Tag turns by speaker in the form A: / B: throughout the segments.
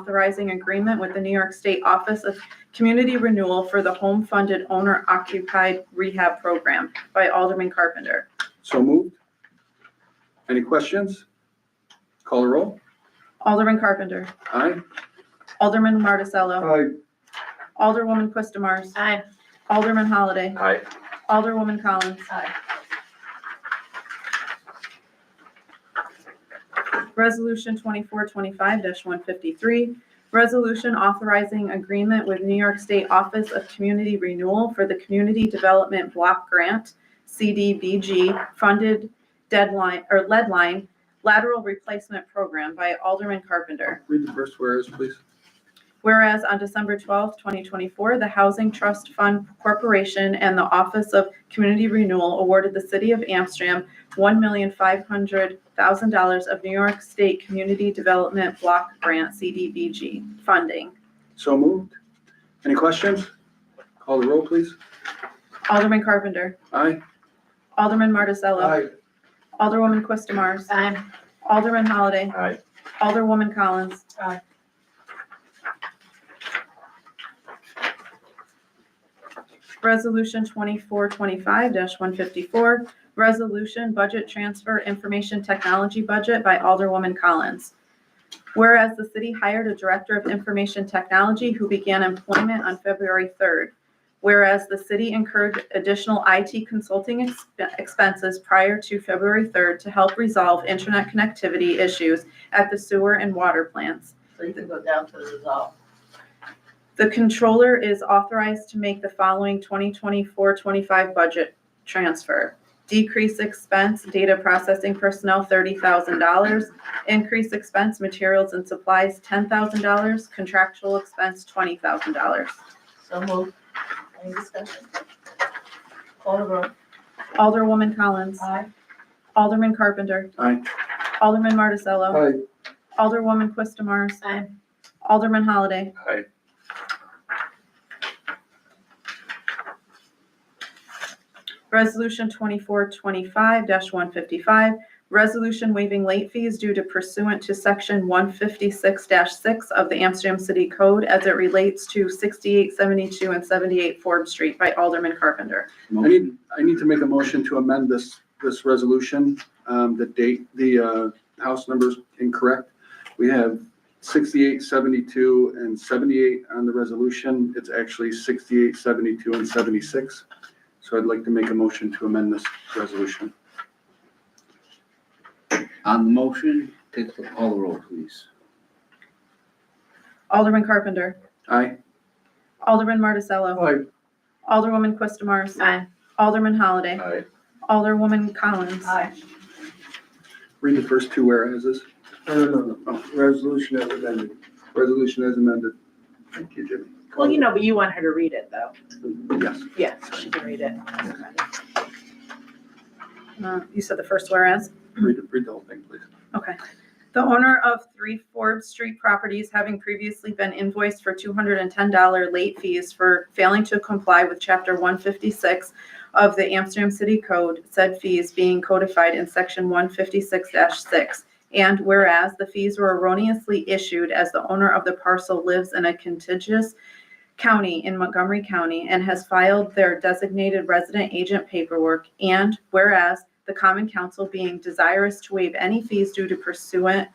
A: authorizing agreement with the New York State Office of Community Renewal for the Home Funded Owner Occupied Rehab Program by Alderman Carpenter.
B: So moved. Any questions? Call a roll.
A: Alderman Carpenter.
B: Aye.
A: Alderman Marticello.
B: Aye.
A: Alderwoman Quistamars.
C: Aye.
A: Alderman Holliday.
D: Aye.
A: Alderwoman Collins.
C: Aye.
A: Resolution twenty-four twenty-five one fifty-three, resolution authorizing agreement with New York State Office of Community Renewal for the Community Development Block Grant, CDBG, funded deadline, or leadline, lateral replacement program by Alderman Carpenter.
B: Read the first whereas, please.
A: Whereas on December 12, 2024, the Housing Trust Fund Corporation and the Office of Community Renewal awarded the City of Amsterdam $1,500,000 of New York State Community Development Block Grant CDBG funding.
B: So moved. Any questions? Call the roll, please.
A: Alderman Carpenter.
B: Aye.
A: Alderman Marticello. Alderwoman Quistamars.
C: Aye.
A: Alderman Holliday.
D: Aye.
A: Alderwoman Collins.
C: Aye.
A: Resolution twenty-four twenty-five one fifty-four, resolution budget transfer information technology budget by Alderwoman Collins. Whereas the city hired a director of information technology who began employment on February third. Whereas the city incurred additional IT consulting ex- expenses prior to February third to help resolve internet connectivity issues at the sewer and water plants.
C: So you can go down to the resolve.
A: The controller is authorized to make the following 2024-25 budget transfer. Decrease expense, data processing personnel, $30,000. Increase expense, materials and supplies, $10,000. Contractual expense, $20,000.
C: So moved. Any discussion? Call the roll.
A: Alderwoman Collins.
C: Aye.
A: Alderman Carpenter.
B: Aye.
A: Alderman Marticello.
B: Aye.
A: Alderwoman Quistamars.
C: Aye.
A: Alderman Holliday.
D: Aye.
A: Resolution twenty-four twenty-five one fifty-five, resolution waiving late fees due to pursuant to section one fifty-six six of the Amsterdam City Code as it relates to sixty-eight seventy-two and seventy-eight Forbes Street by Alderman Carpenter.
B: I need, I need to make a motion to amend this, this resolution. Um, the date, the, uh, house number's incorrect. We have sixty-eight seventy-two and seventy-eight on the resolution. It's actually sixty-eight seventy-two and seventy-six. So I'd like to make a motion to amend this resolution.
E: On the motion, take the call the roll, please.
A: Alderman Carpenter.
B: Aye.
A: Alderman Marticello.
B: Aye.
A: Alderwoman Quistamars.
C: Aye.
A: Alderman Holliday.
D: Aye.
A: Alderwoman Collins.
C: Aye.
B: Read the first two whereases.
F: No, no, no,
B: Oh,
F: no. resolution as amended.
B: Resolution as amended. Thank you, Jimmy.
C: Well, you know, but you want her to read it, though.
B: Yes.
C: Yeah, she can read it.
A: Uh, You said the first whereas.
B: Read, read the whole thing, please.
A: Okay. The owner of three Forbes Street properties having previously been invoiced for two hundred and ten dollar late fees for failing to comply with chapter one fifty-six of the Amsterdam City Code, said fees being codified in section one fifty-six six. And whereas the fees were erroneously issued as the owner of the parcel lives in a contiguous county in Montgomery County and has filed their designated resident agent paperwork. And whereas the common council being desirous to waive any fees due to pursuant,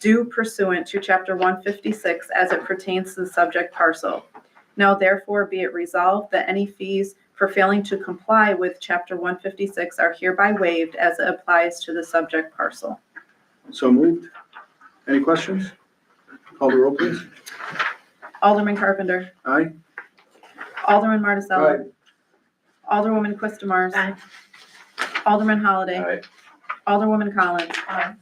A: due pursuant to chapter one fifty-six as it pertains to the subject parcel. Now therefore be it resolved that any fees for failing to comply with chapter one fifty-six are hereby waived as it applies to the subject parcel.
B: So moved. Any questions? Call the roll, please.
A: Alderman Carpenter.
B: Aye.
A: Alderman Marticello. Alderwoman Quistamars.
C: Aye.
A: Alderman Holliday.
D: Aye.
A: Alderwoman Collins.
C: Aye.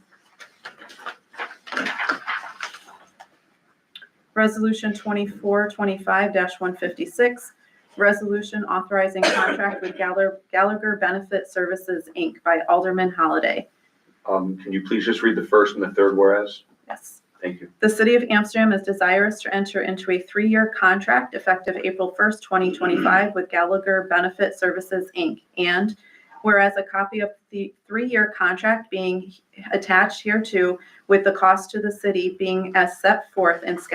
A: Resolution twenty-four twenty-five one fifty-six, resolution authorizing contract with Galler- Gallagher Benefit Services, Inc. by Alderman Holliday.
D: Um, can you please just read the first and the third whereas?
A: Yes.
D: Thank you.
A: The City of Amsterdam is desirous to enter into a three-year contract effective April 1st, 2025 with Gallagher Benefit Services, Inc. And Whereas a copy of the three-year contract being attached hereto with the cost to the city being as set forth in Schedule